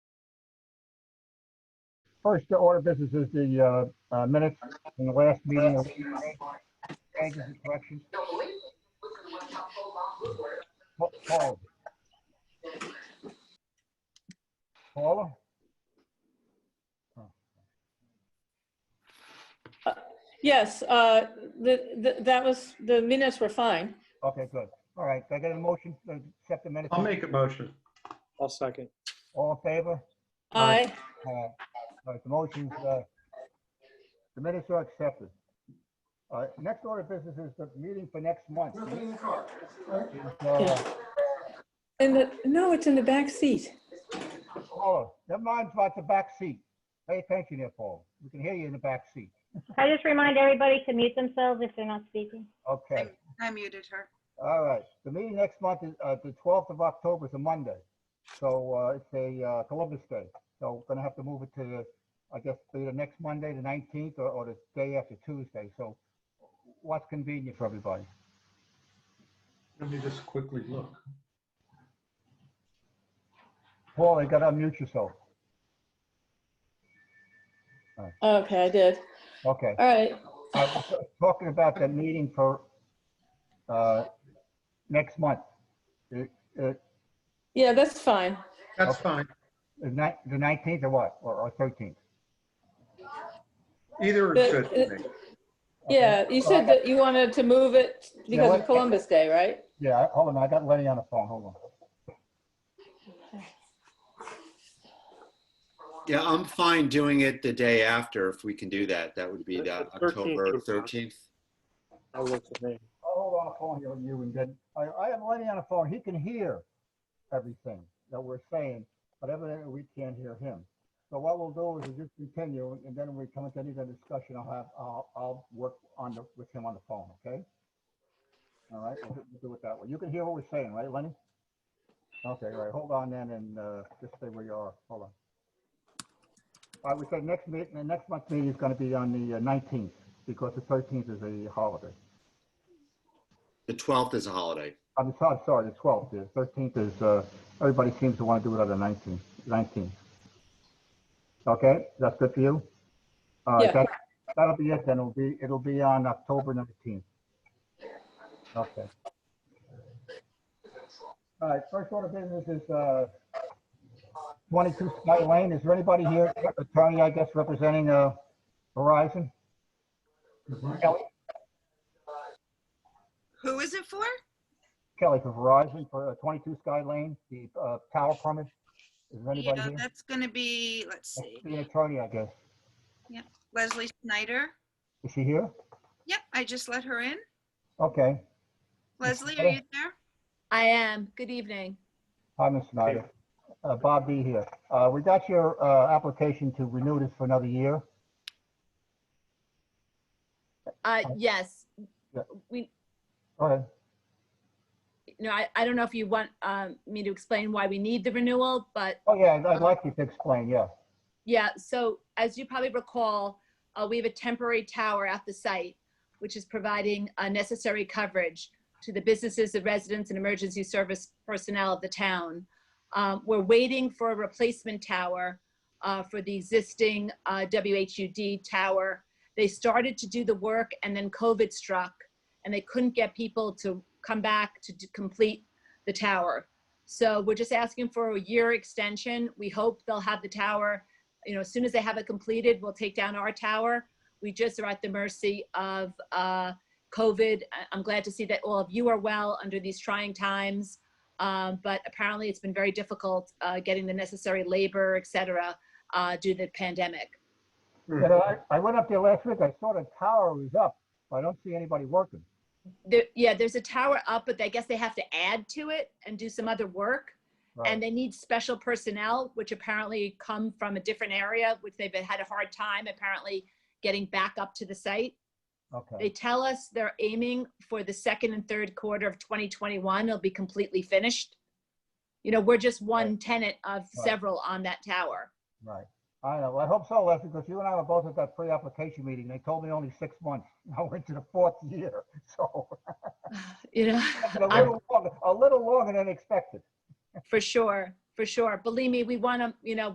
First order of business is the uh, uh, minutes from the last meeting. of- Changes and corrections. Pa- Paul. Paula? Yes, uh, the, the- that was, the minutes were fine. Okay, good. All right, do I get a motion to accept the minutes? I'll make a motion. I'll second. All in favor? All I, right. All right, the motion's, uh, the minutes are accepted. All right, next order of business is the meeting for next month. Uh, in the, no, it's in the back seat. Paula, never mind about the back seat. Pay attention there, Paul. We can hear you in the back seat. I just remind everybody to mute themselves if they're not speaking. Okay, I muted her. all right. The meeting next month is, uh, the twelfth of October is a Monday. So, uh, it's a uh, Columbus Day. So we're gonna have to move it to, the I guess, either next Monday, the nineteenth, or, or the day after Tuesday. So what's convenient for everybody? Let me just quickly look. Paul, you gotta unmute yourself. Okay, I did. Okay. All right. Uh, Talking about the meeting for, uh, next month. The, uh, Yeah, that's fine. That's fine. the ni- the nineteenth or what? Or, or thirteenth? Either is good to me. Yeah, you said that you wanted to move it because what- of Columbus Day, right? Yeah, I- hold on, I got Lenny on the phone, hold on. Yeah, I'm fine doing it the day after if we can do that. That would be The- the the 13th October would work. 13th. That works for me. I'll hold on the phone here with you and then, I, I have Lenny on the phone, he can hear everything that we're saying, but evidently we can't hear him. So what we'll do is we'll just continue and then when we come into any other discussion, I'll have, I'll, I'll work on the, with him on the phone, okay? All right, we'll do- we'll do it that way. You can hear what we're saying, right, Lenny? Okay, all right, hold on then and, uh, just stay where you are, hold on. I would say next meeting, the next month's meeting is gonna be on the uh, nineteenth because the thirteenth is a holiday. The 12th is a holiday. I'm sorry, sorry, the twelfth, the thirteenth is, uh, everybody seems to want to do it on the nineteenth, nineteenth. Okay, that's good for you? All right, Yeah. that, that'll be it then, it'll be, it'll be on October nineteenth. Okay. All right, first order of business is, uh, twenty-two Sky Lane, is there anybody here, attorney, I guess, representing, uh, Verizon? Kelly, Who is it for? Kelly for Verizon for uh, 22 Sky Lane, the uh, tower permit. Is there anybody Yeah, here? that's gonna be, let's That's see, The attorney, I guess. Leslie Snyder. Is she here? Yep, I just let her in. Okay. Leslie, Oh. are you there? I am. Good evening. Hi, Ms. Snyder. Uh, Bob B. here. Uh, We got your uh, application to renew this for another year. Uh, Hi. yes, Yeah. we, Go ahead. no, I, I don't know if you want, um, me to explain why we need the renewal, but Oh, yeah, I'd- I'd like you to explain, yeah. yeah, so as you probably recall, uh, we have a temporary tower at the site, which is providing uh, necessary coverage to the businesses, the residents, and emergency service personnel of the town. Um, we're waiting for a replacement tower uh, for the existing uh, WHUD tower. They started to do the work and then COVID struck, and they couldn't get people to come back to d- complete the tower. So we're just asking for a year extension. We hope they'll have the tower you know, as soon as they have it completed, we'll take down our tower. We just are at the mercy of uh, COVID. I- I'm glad to see that all of you are well under these trying times. Um, but apparently it's been very difficult uh, getting the necessary labor, et cetera, uh, due to the pandemic. Hmm. And I I went up there last week, I saw the tower was up, but I don't see anybody working. There, yeah, there's a tower up, but I guess they have to add to it and do some other work. and Right. they need special personnel, which apparently come from a different area, which they've had a hard time apparently getting back up to the site. They Okay, tell us they're aiming for the second and third quarter of 2021, it'll be completely finished. You know, we're just one tenant of Right. several on that tower. right. I know, Well, I hope so, Leslie, because you and I were both at that pre-application meeting. They told me only six months. Now we're into the fourth year, so. You know, A little longer, a little longer than expected. for sure, for sure. Believe me, we want to, you know,